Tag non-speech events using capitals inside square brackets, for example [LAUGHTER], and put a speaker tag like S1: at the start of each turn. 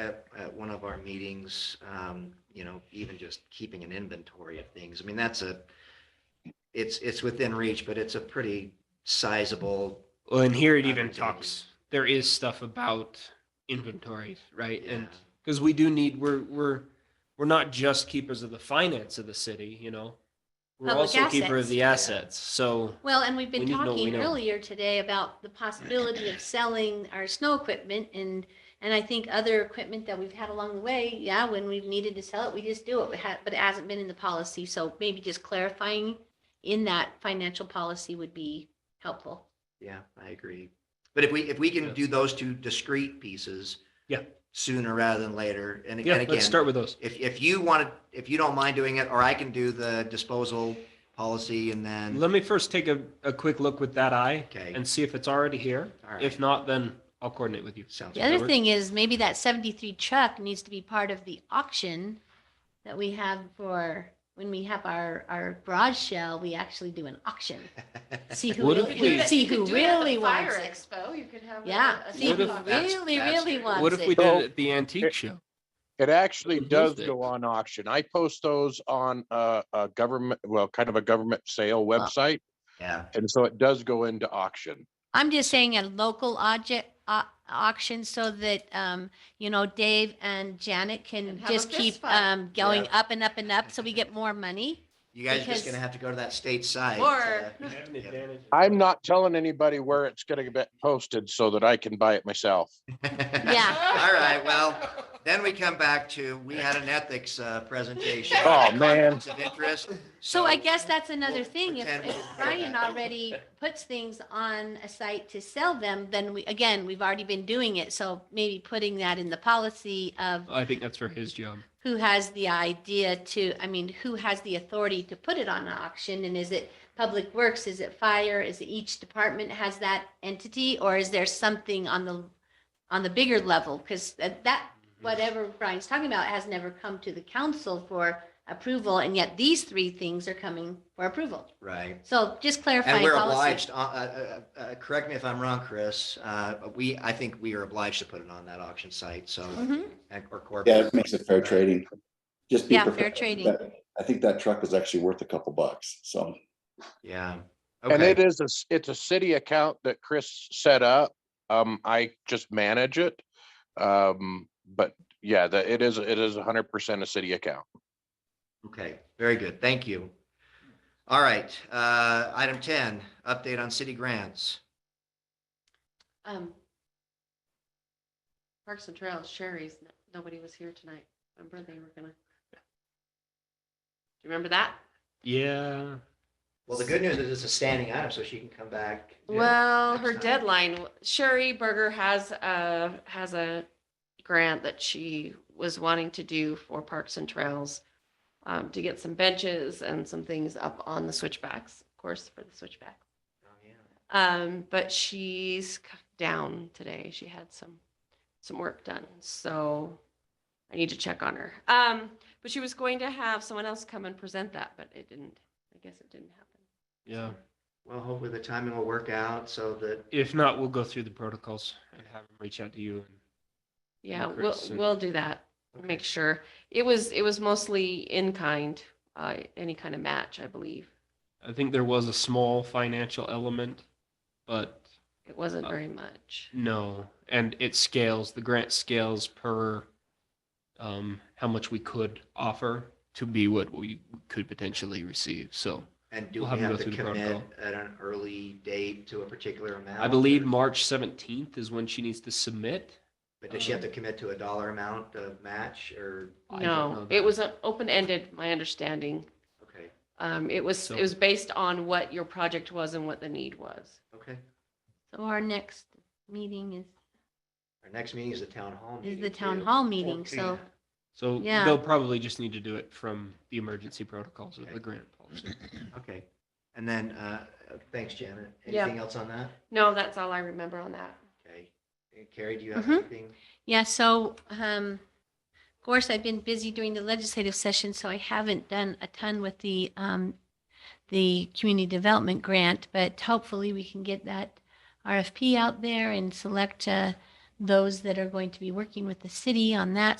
S1: at, at one of our meetings, um, you know, even just keeping an inventory of things. I mean, that's a, it's, it's within reach, but it's a pretty sizable.
S2: Well, and here it even
S1: opportunity.
S2: talks, there is stuff about inventories, right? And
S1: Yeah.
S2: because we do need, we're, we're, we're not just keepers of the finance of the city, you know? We're
S3: Public
S2: also keeper of
S3: assets.
S2: the assets, so.
S3: Well, and we've
S2: We
S3: been
S2: need to know what we
S3: talking
S2: know.
S3: earlier today about the possibility of selling our snow equipment and, and I think other equipment that we've had along the way, yeah, when we've needed to sell it, we just do it. We had, but it hasn't been in the policy, so maybe just clarifying in that financial policy would be helpful.
S1: Yeah, I agree. But if we, if we
S2: Yeah.
S1: can do those two discrete pieces.
S2: Yeah.
S1: Sooner rather than later. And
S2: Yeah,
S1: again,
S2: let's
S1: again,
S2: start with those.
S1: if, if you want to, if you don't mind doing it, or I can do the disposal policy and then,
S2: Let me first take a, a quick look with that eye
S1: okay.
S2: and see if it's already here.
S1: All right.
S2: If not, then I'll coordinate with you.
S1: Sounds
S3: The
S1: good. [LAUGHS]
S2: that
S3: other
S2: works.
S3: thing is maybe that seventy-three truck needs to be part of the auction that we have for, when we have our, our garage sale, we actually do an auction. See who
S2: What if
S4: You could do
S3: really, [LAUGHS]
S4: it-
S3: see
S4: you could
S3: who
S4: do it at the
S3: really wants
S4: Fire
S3: it.
S4: Expo, you could have. a-
S3: Yeah,
S4: a
S3: see
S2: What
S3: who
S2: if-
S4: sidewalk.
S1: that's-
S3: really,
S1: that's
S3: really
S1: true.
S3: wants
S2: What if we
S3: it.
S2: did
S5: So-
S2: it at the antique show?
S5: It actually
S2: Who's
S5: does
S2: it?
S5: go on auction. I post those on a, a government, well, kind of a government sale website.
S1: Yeah,
S5: And so it does go into auction.
S3: I'm just saying a local object, au- auction so that, um, you know, Dave and Janet
S4: And
S3: can
S4: have a
S3: just keep,
S4: fist fight.
S3: um, going up and up and up so we get more money.
S1: you guys are
S3: Because-
S1: just gonna have to go to that uh, state side.
S4: Or-
S1: to-
S5: I'm not telling anybody where it's gonna get posted so that I can buy it myself.
S3: Yeah.
S1: [LAUGHS] All right, well, then we come back to, we had an ethics uh, presentation.
S5: Oh, man.
S1: Conflicts Of interest.
S3: So I guess that's another
S1: we'll
S3: thing. If
S1: pretend
S3: if
S1: we'll do
S3: Brian
S1: that.
S3: already puts things on a site to sell them, then we, again, we've already been doing it. So maybe putting that in the policy of
S2: I think that's for his job.
S3: who has the idea to, I mean, who has the authority to put it on auction? And is it Public Works? Is it Fire? Is it each department has that entity? Or is there something on the, on the bigger level? Because that,
S1: Mm-hmm.
S3: whatever Brian's talking about has never come to the council for approval. And yet these three things are coming for approval.
S1: Right.
S3: So just
S1: And
S3: clarifying
S1: we're
S3: policy.
S1: obliged, uh, uh, uh, uh, correct me if I'm wrong, Chris, uh, we, I think we are obliged to put it on that auction site, so.
S3: Mhm.
S1: and- Or corporate.
S6: Yeah, it makes it fair trading. Just be
S3: Yeah, fair
S6: professional.
S3: trading.
S6: That- I think that truck is actually worth a couple bucks, so.
S1: Yeah.
S5: And
S1: Okay,
S5: it is, a s- it's a city account that Chris set up. Um, I just manage it. Um, but yeah, that it is, it is hundred percent a city account.
S1: okay, very good, thank you. All right, uh, item ten, update on city grants.
S4: Um, Parks and Trails, Sherry's, n- nobody was here tonight. Remember they were gonna. Do you remember that?
S2: Yeah.
S1: Well, the good news is it's a standing item, so she can come back.
S4: Well,
S1: Next
S4: her
S1: time.
S4: deadline, w- Sherry Berger has a, has a grant that she was wanting to do for Parks and Trails um, to get some benches and some things up on the switchbacks, of course, for the switchbacks.
S1: Oh, yeah.
S4: Um, but she's c- down today. She had some, some work done, so I need to check on her. Um, but she was going to have someone else come and present that, but it didn't, I guess it didn't happen.
S2: Yeah.
S1: Well, hopefully the timing will work out so that
S2: If not, we'll go through the protocols and have them reach out to you.
S4: Yeah,
S2: and
S4: we'll,
S2: Chris and-
S4: we'll do that. Make sure. It was, it was mostly in kind, uh, any kind of match, I believe.
S2: I think there was a small financial element, but
S4: It wasn't
S2: Uh,
S4: very much.
S2: no. And it scales, the grant scales per um, how much we could offer to be what we could potentially receive. So
S1: And do we
S2: We'll have them
S1: have
S2: go
S1: to
S2: through the
S1: commit
S2: protocol.
S1: at an early date to a particular amount?
S2: I believe
S1: or-
S2: March 17th is when she needs to submit.
S1: But does she have to commit to a dollar amount of match or,
S2: I don't know
S4: No,
S2: that.
S4: it was open ended, my understanding.
S1: okay,
S4: Um, it was,
S2: So-
S4: it was based on what your project was and what the need was.
S1: okay.
S3: So our next meeting is,
S1: Our next meeting is the town hall.
S3: is
S1: meeting,
S3: the town
S1: too.
S3: hall meeting. So,
S2: So
S3: Yeah.
S2: they'll probably just need to do it from the emergency protocols of
S1: Okay.
S2: the grant policy.
S1: Okay. And then, uh, thanks, Janet.
S4: Yeah.
S1: Anything else on that?
S4: No, that's all I remember on that.
S1: Okay. Uh, Carrie, do you have
S3: Mhm.
S1: anything?
S3: yeah, so, um, of course, I've been busy during the legislative session, so I haven't done a ton with the, um, the community development grant, but hopefully we can get that RFP out there and select a those that are going to be working with the city on that